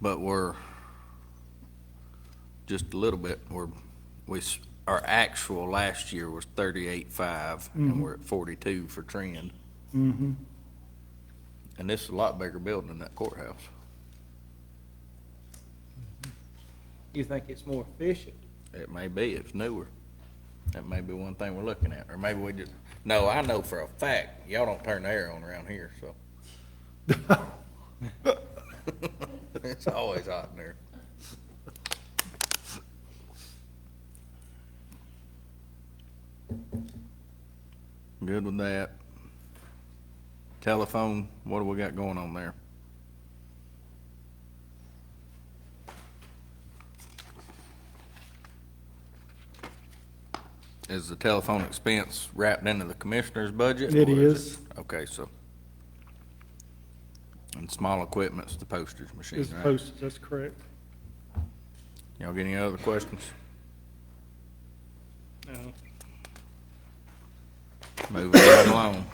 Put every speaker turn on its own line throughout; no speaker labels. but we're just a little bit, we're, we, s- our actual last year was thirty-eight five, and we're at forty-two for trend. Mm-hmm. And this is a lot bigger building than that courthouse.
You think it's more efficient?
It may be, it's newer. That may be one thing we're looking at, or maybe we just, no, I know for a fact, y'all don't turn the air on around here, so. It's always hot in there. Good with that. Telephone, what do we got going on there? Is the telephone expense wrapped into the commissioner's budget?
It
or
is.
Okay, so. And small equipment's the postage machine,
Is
right?
posted, that's correct.
Y'all get any other questions?
No.
Moving right along.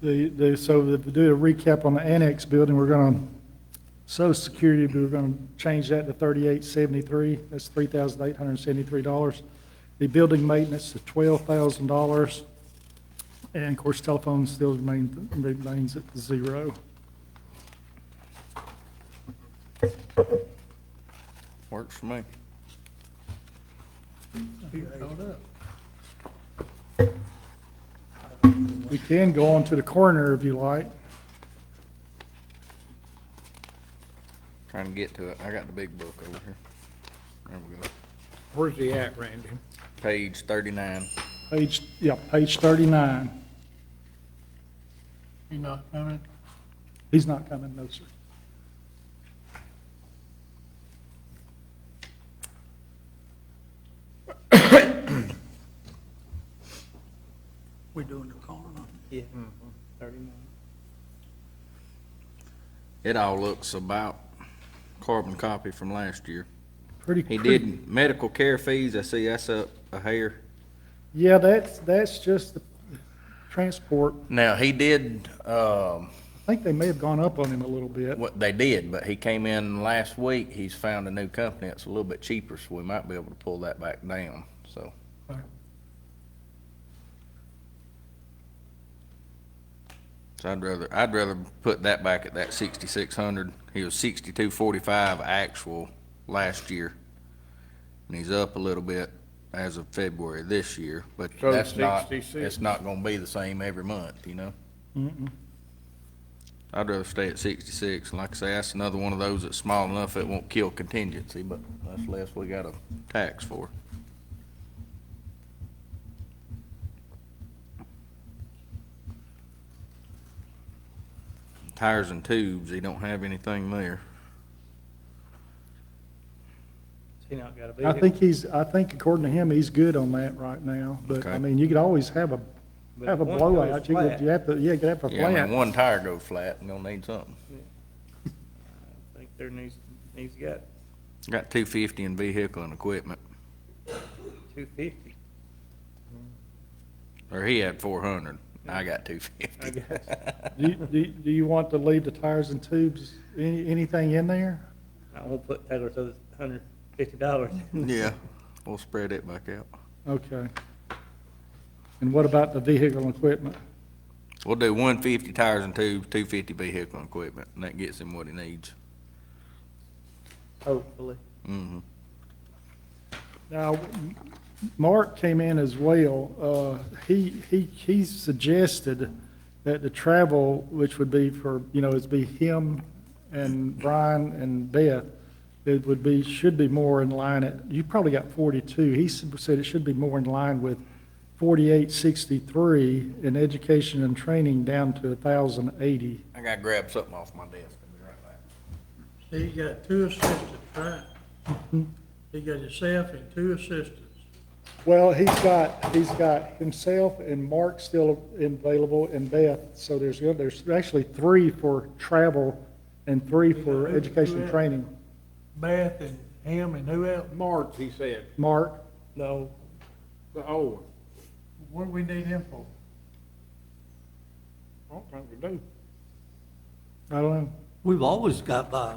The, the, so to do a recap on the annex building, we're gonna, social security, we're gonna change that to thirty-eight seventy-three, that's three thousand eight hundred and seventy-three dollars. The building maintenance is twelve thousand dollars, and of course, telephone still remain- remains at zero.
Works for me.
We can go on to the coroner if you like.
Trying to get to it. I got the big book over here. There we go.
Where's he at, Randy?
Page thirty-nine.
Page, yeah, page thirty-nine.
You not coming?
He's not coming, no, sir.
We're doing the corner.
Yeah. Thirty-nine.
It all looks about carbon copy from last year.
Pretty.
He
pretty-
did medical care fees. I see that's up a hair.
Yeah, that's, that's just the transport.
Now, he did, um,
I think they may have gone up on him a little bit.
what they did, but he came in last week. He's found a new company. It's a little bit cheaper, so we might be able to pull that back down, so. So I'd rather, I'd rather put that back at that sixty-six hundred. He was sixty-two forty-five actual last year. And he's up a little bit as of February this year, but
So
that's not,
66.
it's not gonna be the same every month, you know? I'd rather stay at sixty-six, and like I say, that's another one of those that's small enough it won't kill contingency, but that's less we got a tax for. Tires and tubes, he don't have anything there.
He not got a
I
vehicle?
think he's, I think according to him, he's good on that right now, but I
Okay.
mean, you could always have a,
But
have a
if one
blowout.
goes
You could,
flat,
you have to, yeah, you could have a
Yeah, I mean,
flat.
one tire go flat, we gonna need something.
I think there needs, needs got
Got two fifty in vehicle and equipment,
two fifty.
or he had four hundred, I got two fifty.
I guess.
Do, you- do, you- do you want to leave the tires and tubes, any, anything in there?
I won't put Taylor's other hundred fifty dollars.
Yeah, we'll spread it back out.
Okay. And what about the vehicle and equipment?
We'll do one fifty tires and tubes, two fifty vehicle and equipment, and that gets him what he needs.
Hopefully.
Mm-hmm.
Now, M- Mark came in as well. Uh, He, he, he suggested that the travel, which would be for, you know, it'd be him and Brian and Beth, it would be, should be more in line at, you probably got 42. He s- said it should be more in line with 4863 in education and training down to 1,080.
I gotta grab something off my desk. I'll be right back.
So you got two assistants, right? You got yourself and two assistants.
Well, he's got, he's got himself and Mark still available and Beth, so there's, there's actually three for travel and three for education and training.
Beth and him and who else?
March, he said,
Mark,
No,
the old one.
What do we need him for?
I don't think we do.
I don't know.
We've always got by